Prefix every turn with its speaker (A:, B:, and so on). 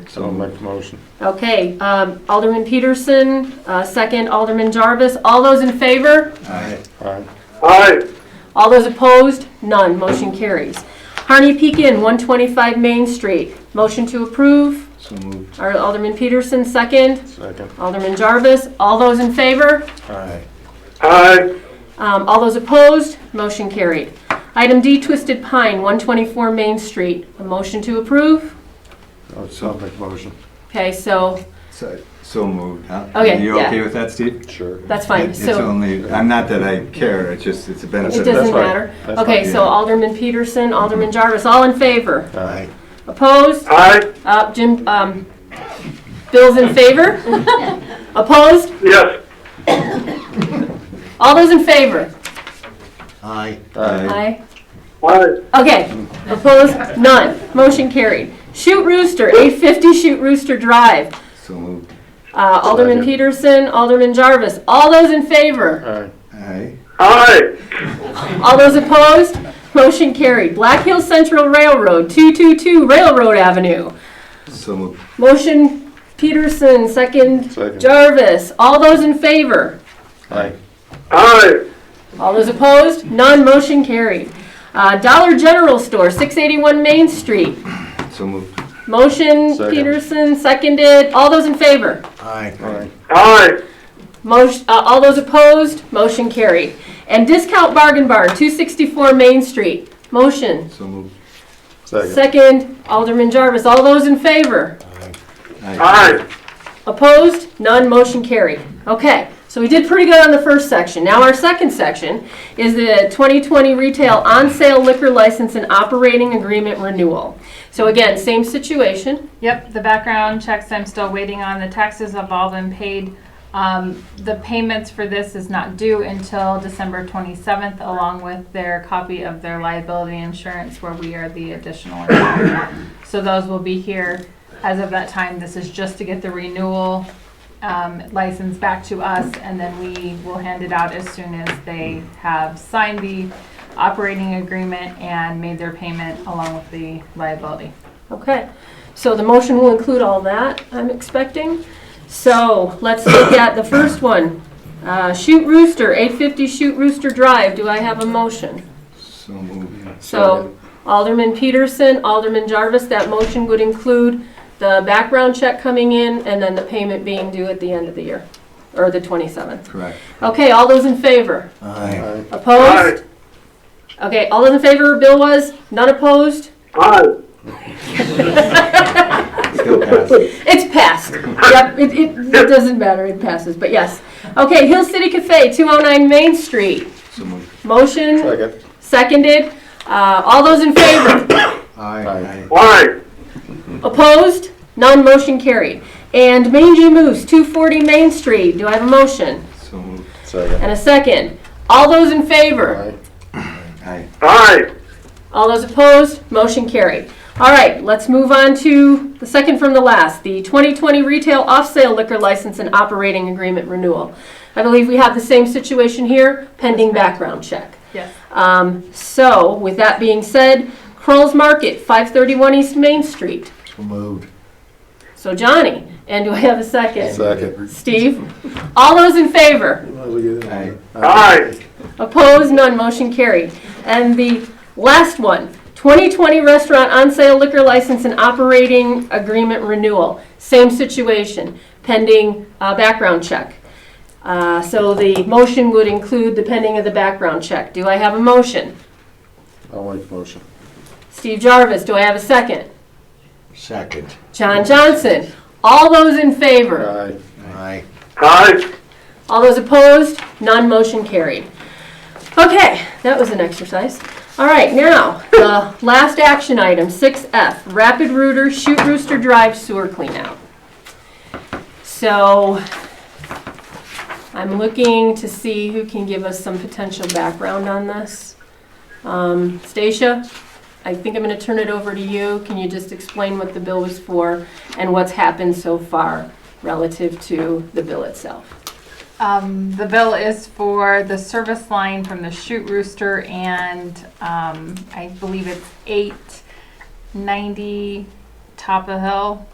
A: So I'll make the motion.
B: Okay, um, Alderman Peterson, uh, second Alderman Jarvis. All those in favor?
A: Aye.
C: Aye.
B: All those opposed? None. Motion carries. Harney Pekin, 125 Main Street. Motion to approve.
D: So moved.
B: Our Alderman Peterson, second.
A: Second.
B: Alderman Jarvis. All those in favor?
A: Aye.
C: Aye.
B: Um, All those opposed? Motion carried. Item D, Twisted Pine, 124 Main Street. A motion to approve.
A: I'll Oh, so I'll make the motion.
B: Okay, so
D: So, so moved, huh?
B: Okay,
D: You
B: yeah.
D: okay with that, Steve?
A: Sure.
B: that's
D: It-
B: fine.
D: It's
B: So
D: only, I'm not that I care, it's just, it's a benefit.
B: it
A: that's
B: doesn't
A: fine.
B: matter.
A: That's
B: Okay,
D: fine.
B: so Alderman Peterson, Alderman Jarvis, all in favor?
A: Aye.
B: Opposed?
C: Aye.
B: Uh, Jim, um, Bill's in favor? Opposed?
C: Yes.
B: All those in favor?
D: Aye.
A: Aye.
B: Aye.
C: Aye.
B: Okay, opposed? None. Motion carried. Shoot Rooster, 850 Shoot Rooster Drive.
D: So moved.
B: Uh, Alderman
A: Second.
B: Peterson, Alderman Jarvis, all those in favor?
A: Aye.
D: Aye.
C: Aye.
B: All those opposed? Motion carried. Black Hills Central Railroad, 222 Railroad Avenue.
D: So moved.
B: Motion Peterson, second
A: Second.
B: Jarvis, all those in favor?
A: Aye.
C: Aye.
B: All those opposed? None, motion carried. Uh, Dollar General Store, 681 Main Street.
D: So moved.
B: Motion
A: Second.
B: Peterson, seconded. All those in favor?
A: Aye.
C: Aye.
B: Motion, uh, all those opposed? Motion carried. And Discount Bargain Bar, 264 Main Street. Motion.
D: So moved.
A: Second.
B: Second, Alderman Jarvis. All those in favor?
C: Aye.
B: Opposed? None, motion carried. Okay, so we did pretty good on the first section. Now our second section is the 2020 retail on-sale liquor license and operating agreement renewal. So again, same situation.
E: Yep, the background checks I'm still waiting on. The taxes have all been paid. Um, the payments for this is not due until December twenty-seventh, along with their copy of their liability insurance where we are the additional. insured. So those will be here as of that time. This is just to get the renewal, um, license back to us and then we will hand it out as soon as they have signed the operating agreement and made their payment along with the liability.
B: Okay, so the motion will include all that, I'm expecting. So let's look at the first one. Uh, Shoot Rooster, 850 Shoot Rooster Drive. Do I have a motion?
D: So moved.
B: So Alderman Peterson, Alderman Jarvis, that motion would include the background check coming in and then the payment being due at the end of the year, or the 27th.
D: Correct.
B: Okay, all those in favor?
D: Aye.
A: Aye.
B: Opposed? Okay, all those in favor, Bill was, none opposed?
C: Aye.
D: Still passes.
B: It's passed. Yep, it, it, it doesn't matter, it passes, but yes. Okay, Hill City Cafe, 209 Main Street.
D: So moved.
B: Motion
A: Second.
B: seconded. Uh, All those in favor?
D: Aye.
C: Aye.
B: Opposed? None, motion carried. And Mangy Moose, 240 Main Street, do I have a motion?
D: So moved.
A: Second.
B: And a second. All those in favor?
A: Aye.
D: Aye.
C: Aye.
B: All those opposed? Motion carried. All right, let's move on to the second from the last, the 2020 Retail Off-Sale Liquor License and Operating Agreement Renewal. I believe we have the same situation here, pending background check.
E: Yes.
B: Um, So with that being said, Kroll's Market, 531 East Main Street.
D: So moved.
B: So Johnny, and do I have a second?
A: Second.
B: Steve? All those in favor?
D: Aye.
C: Aye.
B: Opposed? None. Motion carried. And the last one, 2020 restaurant on-sale liquor license and operating agreement renewal. Same situation, pending uh, background check. Uh, So the motion would include the pending of the background check. Do I have a motion?
A: I'll make the motion.
B: Steve Jarvis, do I have a second?
D: Second.
B: John Johnson? All those in favor?
A: Aye.
D: Aye.
C: Aye.
B: All those opposed? None motion carried. Okay, that was an exercise. All right, now, the last action item, 6F, Rapid Rooter Shoot Rooster Drive Sewer Cleanout. So I'm looking to see who can give us some potential background on this. Um, Stacia, I think I'm going to turn it over to you. Can you just explain what the bill was for and what's happened so far relative to the bill itself?
E: Um, the bill is for the service line from the Shoot Rooster and, um, I believe it's eight ninety Top of Hill